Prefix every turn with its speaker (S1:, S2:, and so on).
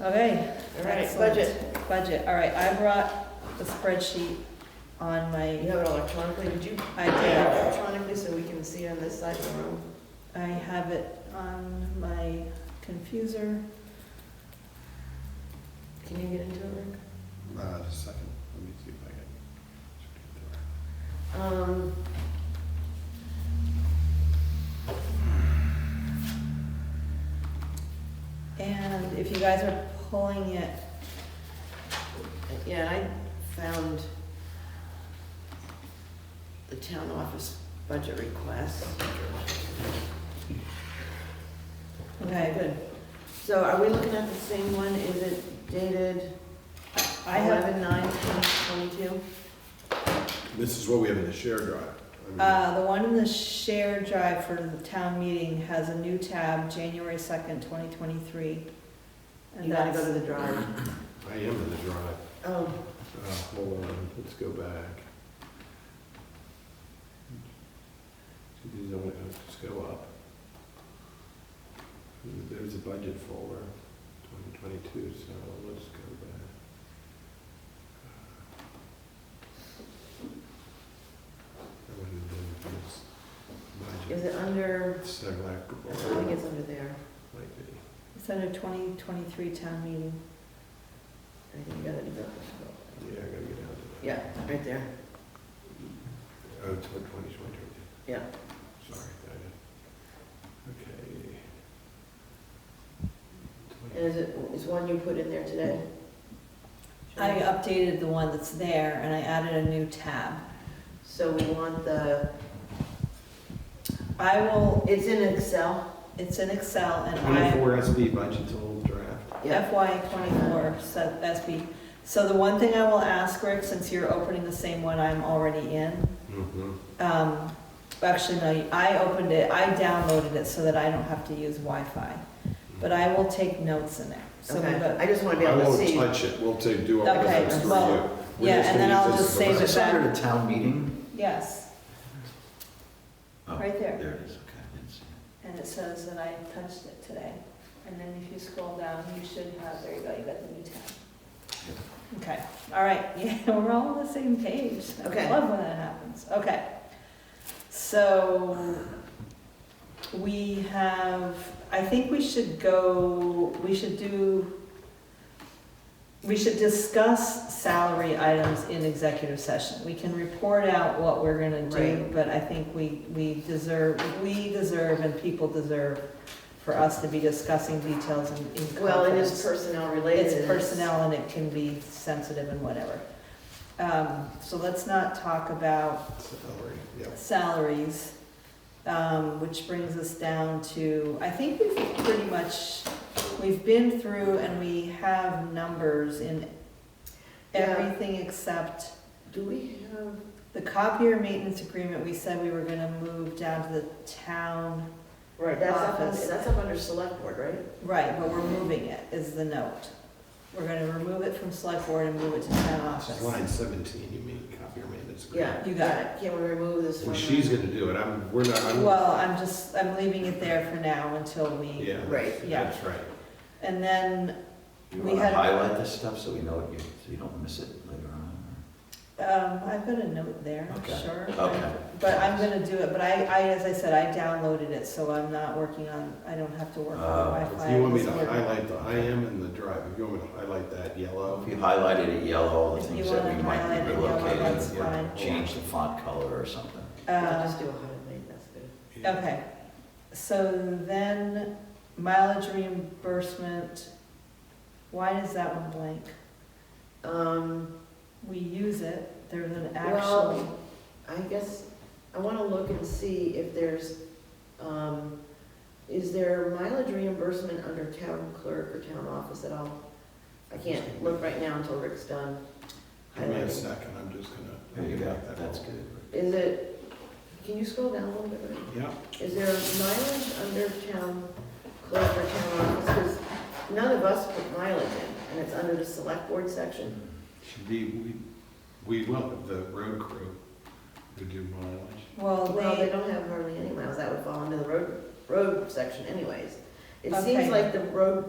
S1: Okay.
S2: All right,
S1: excellent.
S2: budget.
S1: Budget, all right, I brought the spreadsheet on
S2: You
S1: my,
S2: have it electronically, did you?
S1: I
S2: have
S1: did,
S2: it Electronically, so we can see on this side of the room.
S1: I have it on my confuser.
S2: Can you get into it, Rick?
S3: Uh, just a second, let me see if I can.
S2: Um,
S1: And if you guys are pulling it,
S2: yeah, I found the town office budget request.
S1: okay, good.
S2: So are we looking at the same one? Is it dated
S1: I have,
S2: eleven nine twenty twenty-two?
S3: This is what we have in the shared drive. I mean,
S1: uh, the one in the shared drive for the town meeting has a new tab, January second, twenty twenty-three.
S2: You
S1: And
S2: gotta
S1: that's,
S2: go to the drive.
S3: I am in the drive.
S2: Oh,
S3: Uh, hold on, let's go back. These don't have to go up. There's a budget folder, twenty twenty-two, so let's go back. Uh, I wouldn't do this budget,
S2: is it under, I think
S3: selectable,
S2: it's under there.
S3: might be.
S1: it's under twenty twenty-three town meeting.
S2: I think you gotta do that.
S3: Yeah, I gotta get down to that.
S2: Yeah, right there.
S3: Oh, it's one twenty, it's one twenty.
S2: Yeah.
S3: Sorry, I did.
S2: And
S3: Okay.
S2: is it, is one you put in there today?
S1: I uh, updated the one that's there and I added a new tab.
S2: So we want the,
S1: I will,
S2: it's in Excel?
S1: it's in Excel and I,
S3: Twenty-four SB budget's old draft.
S1: FY twenty-four, so SB. So the one thing I will ask, Rick, since you're opening the same one I'm already in,
S3: Mm-hmm.
S1: um, actually, no, I opened it, I downloaded it so that I don't have to use Wi-Fi. But I will take notes in it. So, we've
S2: Okay,
S1: got-
S2: I just wanna be
S3: I
S2: able to
S3: won't
S2: see.
S3: touch it, we'll take, do all the
S1: Okay,
S3: rest
S2: well,
S3: for you. We're
S1: yeah,
S3: just
S1: and then
S3: gonna use
S1: I'll
S3: this
S1: just
S3: as a
S1: save it.
S4: Is
S3: budget.
S4: this under the town meeting?
S1: yes,
S4: Oh,
S1: Right there.
S4: There it is, okay, I didn't see it.
S1: and it says that I touched it today. And then if you scroll down, you should have, there you go, you got the new tab. Okay, all right, yeah, we're all on the same page. I
S2: Okay.
S1: love when that happens, okay. So, we have, I think we should go, we should do, we should discuss salary items in executive session. We can report out what we're gonna do,
S2: Right.
S1: but I think we, we deserve, we deserve and people deserve for us to be discussing details in, in confidence.
S2: Well, it is personnel related.
S1: It's personnel and it can be sensitive and whatever. Um, so let's not talk about
S3: Salary, yeah.
S1: salaries, um, which brings us down to, I think we've pretty much, we've been through and we have numbers in
S2: Yeah.
S1: everything except
S2: Do we have,
S1: the copier maintenance agreement, we said we were gonna move down to the town.
S2: right, that's up, under-
S1: Office.
S2: that's up under select board, right?
S1: Right, but we're moving it, is the note. We're gonna remove it from select board and move it to town
S3: It's
S1: office.
S3: Line seventeen, you mean, copy your maintenance. agreement.
S2: Yeah.
S1: You got
S2: yeah. Can we remove this one?
S3: Well, she's gonna do it, I'm, we're not, I'm,
S1: Well, I'm just, I'm leaving it there for now until we,
S3: yeah,
S2: Right,
S3: that's-
S1: yeah.
S3: that's right.
S1: and then
S4: You
S1: We
S4: wanna
S1: had-
S4: highlight this stuff so we know it, you- so you don't miss it later on?
S1: Um, I've got a note there,
S4: Okay,
S1: sure.
S4: okay.
S1: But I'm gonna do it, but I, I, as I said, I downloaded it, so I'm not working on, I don't have to work on
S4: Oh.
S1: Wi-Fi.
S3: If you want me
S1: It's
S3: to
S1: working.
S3: highlight the, I am in the drive, if you want me to highlight that
S4: Well,
S3: yellow,
S4: If you highlighted it yellow, all the
S1: If
S4: things
S1: you
S4: that
S1: wanna
S4: we might
S1: highlight
S4: be
S1: it yellow, that's
S4: relocating, or
S1: fine.
S4: change the font color or something.
S2: Yeah, Just
S1: Uh,
S2: do a hundred late, that's good.
S3: yeah.
S1: Um, okay, so then mileage reimbursement, why is that one blank?
S2: Um,
S1: We use it, there's an actual,
S2: well, I guess, I wanna look and see if there's, um, is there mileage reimbursement under town clerk or town office at all? I can't look right now until Rick's done
S3: Give me a
S2: highlighting.
S3: second, I'm just gonna.
S4: There you go,
S3: that
S4: that's
S3: whole-
S4: good.
S2: Is it, can you scroll down a little bit? Rick?
S3: Yeah,
S2: Is there mileage under town clerk or town office? Because none of us put mileage in, and it's under the select board section.
S3: Should be, we, we will, the road crew who do mileage.
S1: well,
S2: Well, they
S1: they,
S2: don't have hardly any miles, that would fall under the road, road section anyways. It seems
S1: Okay.
S2: like the road